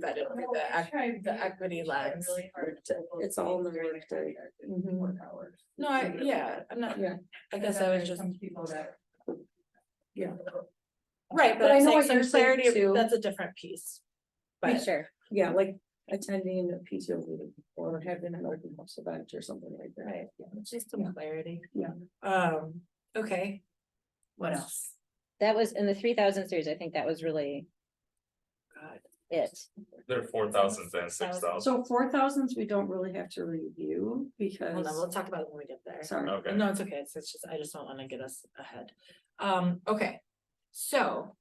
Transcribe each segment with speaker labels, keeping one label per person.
Speaker 1: vetted through
Speaker 2: No,
Speaker 1: the
Speaker 2: I
Speaker 1: ec-
Speaker 2: tried
Speaker 1: the
Speaker 2: really-
Speaker 1: equity
Speaker 2: I tried
Speaker 1: lens.
Speaker 2: really hard
Speaker 3: It's-
Speaker 2: to pull
Speaker 3: it's
Speaker 2: those
Speaker 3: all in
Speaker 2: things
Speaker 3: the
Speaker 2: during my
Speaker 3: workday.
Speaker 2: work
Speaker 1: Mhm.
Speaker 2: hours.
Speaker 1: No, I, yeah, I'm not,
Speaker 3: Yeah.
Speaker 1: I
Speaker 2: And
Speaker 1: guess
Speaker 2: then
Speaker 1: I was
Speaker 2: there's
Speaker 1: just,
Speaker 2: some People that.
Speaker 3: Yeah.
Speaker 1: right,
Speaker 3: but
Speaker 1: but
Speaker 3: I
Speaker 1: I'm
Speaker 3: know
Speaker 1: saying
Speaker 3: what
Speaker 1: some
Speaker 3: you're saying
Speaker 1: clarity,
Speaker 3: too.
Speaker 1: of- that's a different piece. But,
Speaker 3: Sure. Yeah, like attending a PTO meeting or having an open house event or something like that.
Speaker 1: right, it's just
Speaker 3: Yeah.
Speaker 1: some clarity.
Speaker 3: Yeah.
Speaker 1: Um, okay. What else?
Speaker 4: That was in the three thousand series, I think that was really
Speaker 1: God,
Speaker 4: it.
Speaker 5: There are four thousands and six thousands.
Speaker 3: So four thousands, we don't really have to review
Speaker 1: hold on,
Speaker 3: because,
Speaker 1: we'll talk about it when we get there.
Speaker 3: sorry,
Speaker 5: Okay,
Speaker 1: No, it's okay, it's it's just, I just don't wanna get us ahead. Um, okay, so.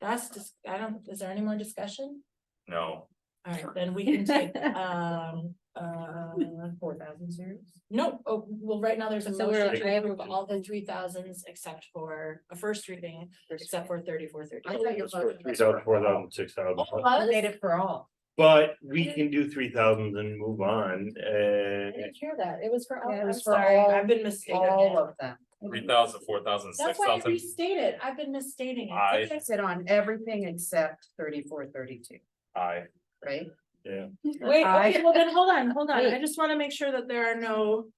Speaker 1: That's just, I don't, is there any more discussion?
Speaker 5: no,
Speaker 1: Alright, then we can take, um, uh, four thousand series? No, oh, well, right now there's a
Speaker 4: So we're,
Speaker 1: motion.
Speaker 4: I
Speaker 1: I
Speaker 4: have
Speaker 1: approve all the three thousands except for a first reading, except for thirty-four,
Speaker 6: I thought
Speaker 1: thirty.
Speaker 6: your motion
Speaker 7: Three
Speaker 6: was
Speaker 7: thousand,
Speaker 6: for
Speaker 7: four
Speaker 6: all.
Speaker 7: thousand, six
Speaker 1: Oh,
Speaker 7: thousand,
Speaker 6: Made it for all.
Speaker 7: but we can do three thousand and move on, uh.
Speaker 6: I didn't hear that. It was for all.
Speaker 2: Yeah, it
Speaker 6: I'm
Speaker 2: was for
Speaker 6: sorry.
Speaker 2: all-
Speaker 1: I've been
Speaker 6: All
Speaker 1: mistaken.
Speaker 6: of them.
Speaker 5: three thousand, four thousand,
Speaker 1: That's
Speaker 5: six
Speaker 1: why I
Speaker 5: thousand.
Speaker 1: restated, I've been misstating. it.
Speaker 5: I-
Speaker 6: I said on everything except thirty-four, thirty-two,
Speaker 5: I,
Speaker 6: right?
Speaker 1: Wait,
Speaker 6: I-
Speaker 1: okay, well then, hold on, hold on, I
Speaker 4: Wait.
Speaker 1: just wanna make sure that there are no.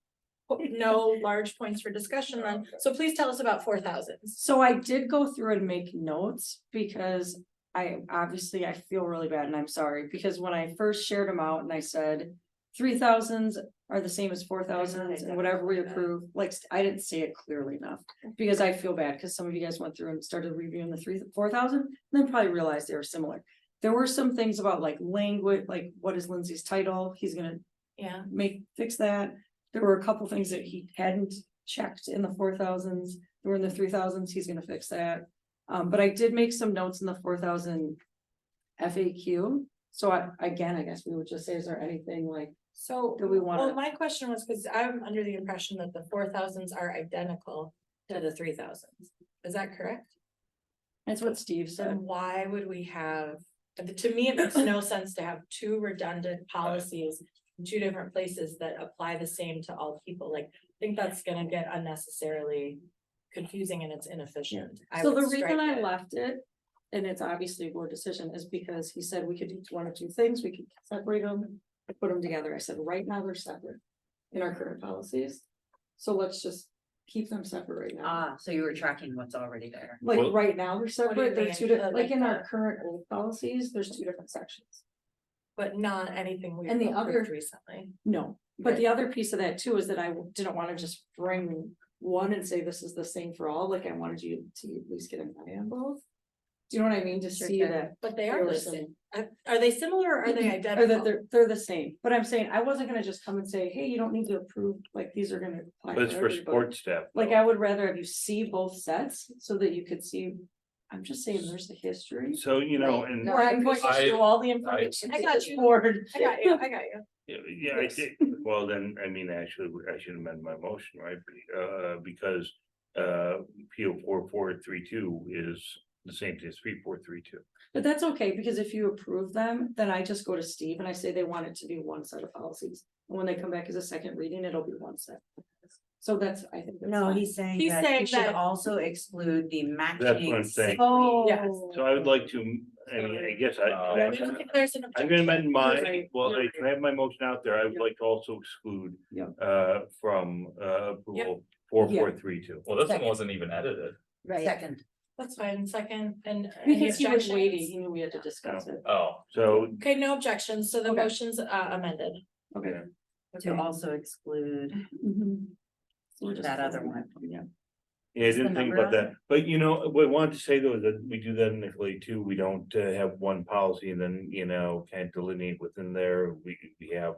Speaker 1: No large points for discussion on, so please tell us about four thousands.
Speaker 3: so I did go through and make notes because I obviously I feel really bad and I'm sorry, because when I first shared them out and I said three thousands are the same as four thousands and whatever we approve, like, I didn't say it clearly enough. Because I feel bad, because some of you guys went through and started reviewing the three, four thousand, then probably realized they were similar. There were some things about like language, like what is Lindsay's title? He's gonna
Speaker 1: Yeah,
Speaker 3: make, fix that. There were a couple things that he hadn't checked in the four thousands, were in the three thousands, he's gonna fix that. Um, but I did make some notes in the four thousand FAQ, so I, again, I guess we would just say, is there anything like,
Speaker 1: so.
Speaker 3: Do we
Speaker 1: Well,
Speaker 3: wanna-
Speaker 1: my question was, cause I'm under the impression that the four thousands are identical to the three thousands. Is that correct?
Speaker 3: that's what Steve said.
Speaker 1: Then why would we have, to me, it makes no sense to have two redundant policies. in Two different places that apply the same to all people, like, I think that's gonna get unnecessarily confusing and it's inefficient. I
Speaker 3: So
Speaker 1: would
Speaker 3: the
Speaker 1: strike
Speaker 3: reason I
Speaker 1: it.
Speaker 3: left it, and it's obviously a board decision, is because he said we could do one or two things, we could separate them. and Put them together, I said, right now they're separate in our current policies, so let's just keep them separate right now.
Speaker 6: Ah, so you were tracking what's already there.
Speaker 3: Like
Speaker 7: Well-
Speaker 3: right now, they're separate, they're
Speaker 1: mean?
Speaker 3: two, di-
Speaker 1: Uh,
Speaker 3: like
Speaker 1: like
Speaker 3: in our
Speaker 1: the-
Speaker 3: current old policies, there's two different sections.
Speaker 1: But not anything we've
Speaker 3: And the
Speaker 1: approved
Speaker 3: other-
Speaker 1: recently.
Speaker 3: No, but the other piece of that too is that I didn't wanna just bring one and say this is the same for all, like I wanted you to at least get an eye on both. Do you know what I mean? To
Speaker 6: Sure,
Speaker 3: see
Speaker 6: yeah.
Speaker 3: that.
Speaker 1: But they are
Speaker 3: there
Speaker 1: the
Speaker 3: was some-
Speaker 1: same. Are are they similar or are they
Speaker 3: Or that
Speaker 1: identical?
Speaker 3: they're, they're the same, but I'm saying I wasn't gonna just come and say, hey, you don't need to approve, like, these are gonna. apply
Speaker 7: But it's for
Speaker 3: everybody."
Speaker 7: sports staff.
Speaker 3: Like, I would rather have you see both sets so that you could see, I'm just saying, there's the history.
Speaker 7: So, you know,
Speaker 6: Right.
Speaker 7: and,
Speaker 6: No,
Speaker 3: Or I'm going to
Speaker 5: I-
Speaker 3: show all the information.
Speaker 1: I
Speaker 3: to
Speaker 1: got
Speaker 3: this
Speaker 1: you.
Speaker 3: Board.
Speaker 1: I got you, I got you.
Speaker 7: yeah, I
Speaker 3: Yes.
Speaker 7: did, well, then, I mean, actually, I should amend my motion, right? Be- Uh, because, uh, PO four, four, three, two is the same thing as three, four, three, two.
Speaker 3: But that's okay, because if you approve them, then I just go to Steve and I say they want it to be one set of policies. And when they come back as a second reading, it'll be one set. So that's, I think. that's
Speaker 6: No,
Speaker 3: fine.
Speaker 6: he's saying
Speaker 1: He's
Speaker 6: that
Speaker 1: saying
Speaker 6: you should
Speaker 1: that-
Speaker 6: also exclude the
Speaker 7: That's what
Speaker 6: matching.
Speaker 7: I'm saying.
Speaker 6: sick leave.
Speaker 3: Oh.
Speaker 1: Yes.
Speaker 7: So I would like to, I mean, I guess I.
Speaker 5: Uh,
Speaker 7: I'm
Speaker 1: I don't
Speaker 7: gonna-
Speaker 1: think there's an
Speaker 7: I'm gonna
Speaker 1: objection.
Speaker 7: amend my,
Speaker 1: Right.
Speaker 7: well, I
Speaker 1: Right.
Speaker 7: can have my motion out there, I would like to also exclude.
Speaker 3: Yeah.
Speaker 7: Uh, from, uh, approval, four, four, three, two.
Speaker 5: well, this one wasn't even edited.
Speaker 4: Right.
Speaker 6: Second,
Speaker 1: That's fine, second and. any
Speaker 3: Because he was waiting,
Speaker 1: objections?
Speaker 3: he knew we had to discuss it.
Speaker 5: Oh,
Speaker 7: So,
Speaker 1: Okay, no objections, so the
Speaker 3: Okay.
Speaker 1: motion's uh amended.
Speaker 3: Okay.
Speaker 6: to also exclude
Speaker 3: Mhm. So we're just
Speaker 6: that other
Speaker 3: closing
Speaker 6: one.
Speaker 3: Yeah.
Speaker 7: yeah, I
Speaker 6: What's the
Speaker 7: didn't think
Speaker 6: number
Speaker 7: about
Speaker 6: on
Speaker 7: that, but you know, what I wanted to say though, is that we do that in Italy too, we don't uh, have one policy and then, you know, can't delineate within there, we, we have.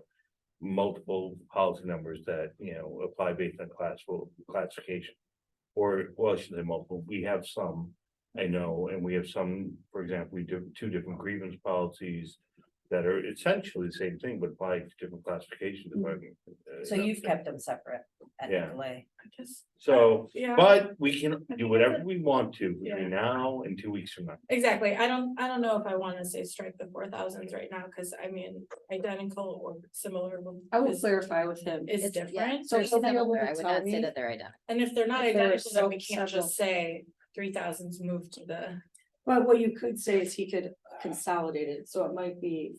Speaker 7: Multiple policy numbers that, you know, apply based on classical classification. Or, well, I should say multiple, we have some, I know, and we have some, for example, we do two different grievance policies. That are essentially the same thing, but apply to different classifications. if I'm, uh,
Speaker 6: Mm. So you've kept them separate at
Speaker 7: Yeah.
Speaker 6: Nicolay.
Speaker 1: I guess-
Speaker 7: So.
Speaker 1: Yeah.
Speaker 7: But we can
Speaker 1: think
Speaker 7: do whatever we want to
Speaker 1: Yeah.
Speaker 7: between now and two weeks from now.
Speaker 1: Exactly, I don't, I don't know if I wanna say strike the four thousands right now, cause I mean, identical or similar would-
Speaker 3: I will
Speaker 1: is-
Speaker 3: clarify with him.
Speaker 1: is
Speaker 4: It's- yeah.
Speaker 1: different.
Speaker 3: So
Speaker 4: They're
Speaker 3: she'll be able
Speaker 4: similar.
Speaker 3: to
Speaker 4: I would
Speaker 3: tell
Speaker 4: not
Speaker 3: me-
Speaker 4: say that they're identical.
Speaker 1: And if they're not
Speaker 3: If there are
Speaker 1: identical, then we
Speaker 3: so
Speaker 1: can't just say three thousands moved to the
Speaker 3: But what you could say is he could consolidate it, so it might be